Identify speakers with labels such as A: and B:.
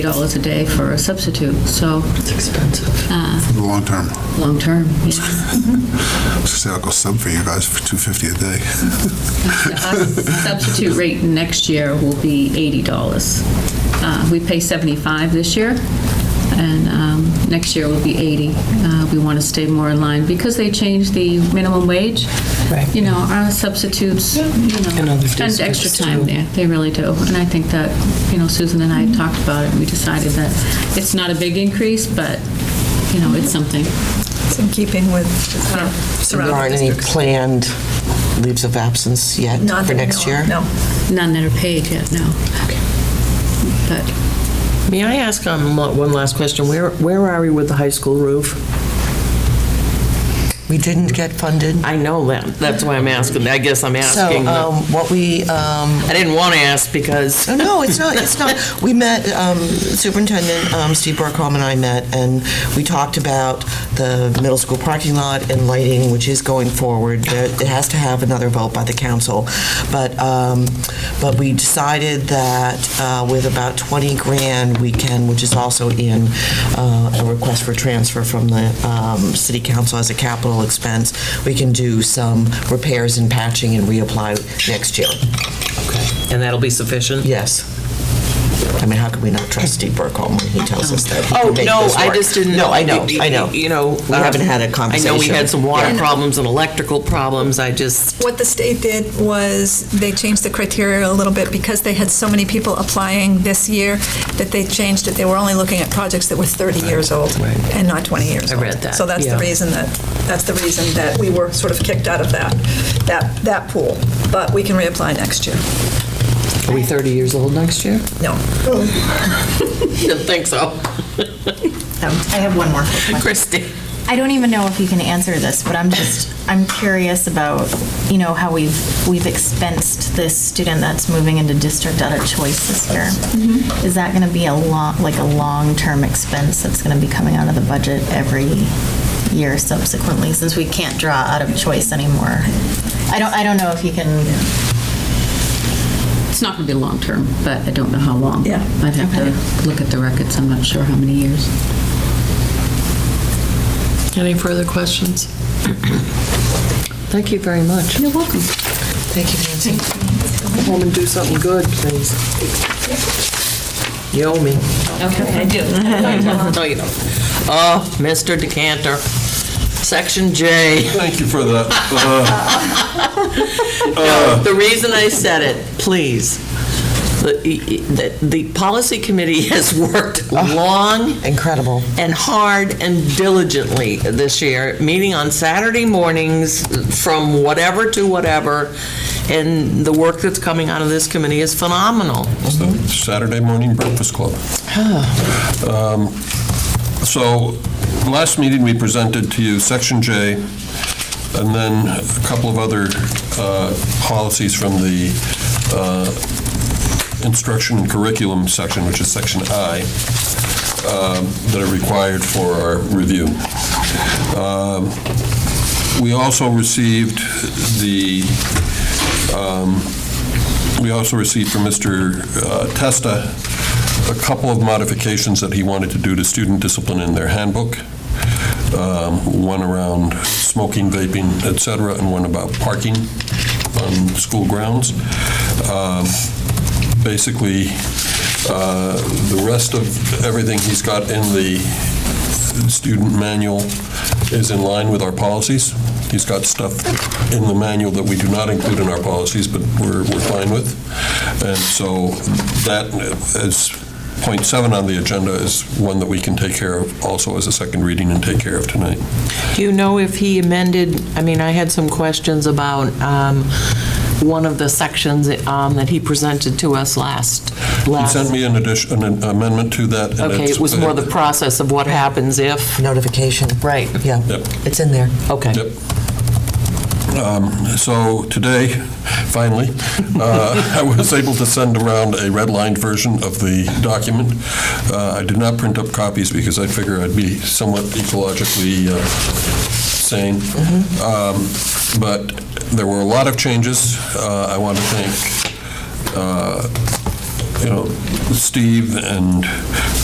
A: dollars a day for a substitute, so,
B: It's expensive.
A: uh,
C: The long term.
A: long-term, yeah.
C: I was gonna say I'll go sub for you guys for 250 a day.
A: Our Substitute rate next year will be $80. Uh, We pay 75 this year, and um, next year will be 80. Uh, We want to stay more in line, because they changed the minimum wage.
B: Right.
A: You know, our substitutes, you
B: And
A: know,
B: other
A: spend extra
B: districts,
A: time
B: too.
A: there, they really do. And I think that, you know, Susan and I had talked about it, and we decided that it's not a big increase, but, you know, it's something.
D: It's in keeping with our
B: There
D: surrounding
B: aren't any
D: districts.
B: planned leaves of absence yet
D: Not
B: for
D: that we
B: next
D: know
B: year?
D: of, No.
A: None that are paid yet, no. But
B: May I ask um, lo- one last question? Where where are we with the high school roof?
E: We didn't get funded.
B: I know that, that's why I'm asking, I guess I'm asking.
E: So um, what we, um,
B: I didn't want to ask because,
E: oh, no, it's not, it's not. We met, um, Superintendent um, Steve Burkholm and I met, and we talked about the middle school parking lot and lighting, which is going forward. There- It has to have another vote by the council. But, um, but we decided that uh, with about 20 grand, we can, which is also in uh, a request for transfer from the um, city council as a capital expense, we can do some repairs and patching and reapply next year.
B: and that'll be sufficient?
E: Yes. I mean, how could we not trust Steve Burkholm when he tells us that? he can
B: Oh,
E: make
B: no,
E: this
B: I
E: work?
B: just didn't.
E: No, I know,
B: y- y-
E: I know.
B: You know.
E: We
B: um,
E: haven't had a
B: I know we
E: conversation.
B: had some water
E: Yeah.
B: problems and electrical problems, I just,
D: What the state did was they changed the criteria a little bit because they had so many people applying this year that they changed it. They were only looking at projects that were 30 years old
B: Right.
D: and not 20 years
B: I
D: old.
B: read that,
D: So that's
B: yeah.
D: the reason that, that's the reason that we were sort of kicked out of that, that, that pool. But we can reapply next year.
B: are we 30 years old next year?
D: No.
B: Didn't think so.
F: I have one more quick question.
B: Christie.
F: I don't even know if you can answer this, but I'm just, I'm curious about, you know, how we've, we've expensed this student that's moving into district out of choice this year.
B: Mm-hmm.
F: Is that going to be a long, like a long-term expense that's going to be coming out of the budget every year subsequently, since we can't draw out of choice anymore? I don't, I don't know if you can,
A: It's not going to be long-term, but I don't know how long.
D: Yeah.
A: I'd have to look at the records, I'm not sure how many years.
B: Any further questions? Thank you very much.
A: You're welcome.
B: Thank you, Nancy. Go home and do something good, please. You owe me.
A: Okay.
B: No, you don't. Oh, Mr. Decanter. Section J.
G: Thank you for that. Uh,
B: The reason I said it, please, the, the- the policy committee has worked long
E: Incredible.
B: and hard and diligently this year, meeting on Saturday mornings from whatever to whatever, and the work that's coming out of this committee is phenomenal.
G: so Saturday morning breakfast club. Um, So, last meeting, we presented to you Section J, and then a couple of other uh, policies from the uh, instruction and curriculum section, which is Section I, um, that are required for our review. Um, We also received the We also received from Mr. uh, Testa a couple of modifications that he wanted to do to student discipline in their handbook, Um, one around smoking, vaping, et cetera, and one about parking on school grounds. Um, Basically, uh, the rest of everything he's got in the student manual is in line with our policies. He's got stuff in the manual that we do not include in our policies, but we're, we're fine with. And so that is, point seven on the agenda is one that we can take care of also as a second reading and take care of tonight.
B: Do you know if he amended, I mean, I had some questions about um, one of the sections um, that he presented to us last,
G: He
B: last.
G: sent me an addition, an amendment to that. and
B: Okay,
G: it's-
B: it was more the process of what happens if.
E: Notification.
B: Right.
E: Yeah.
G: Yep.
E: It's in there.
B: Okay.
G: Yep. Um, So today, finally, uh, I was able to send around a redlined version of the document. Uh, I did not print up copies because I figure I'd be somewhat ecologically uh, sane. Um, But there were a lot of changes. Uh, I want to thank uh, you know, Steve and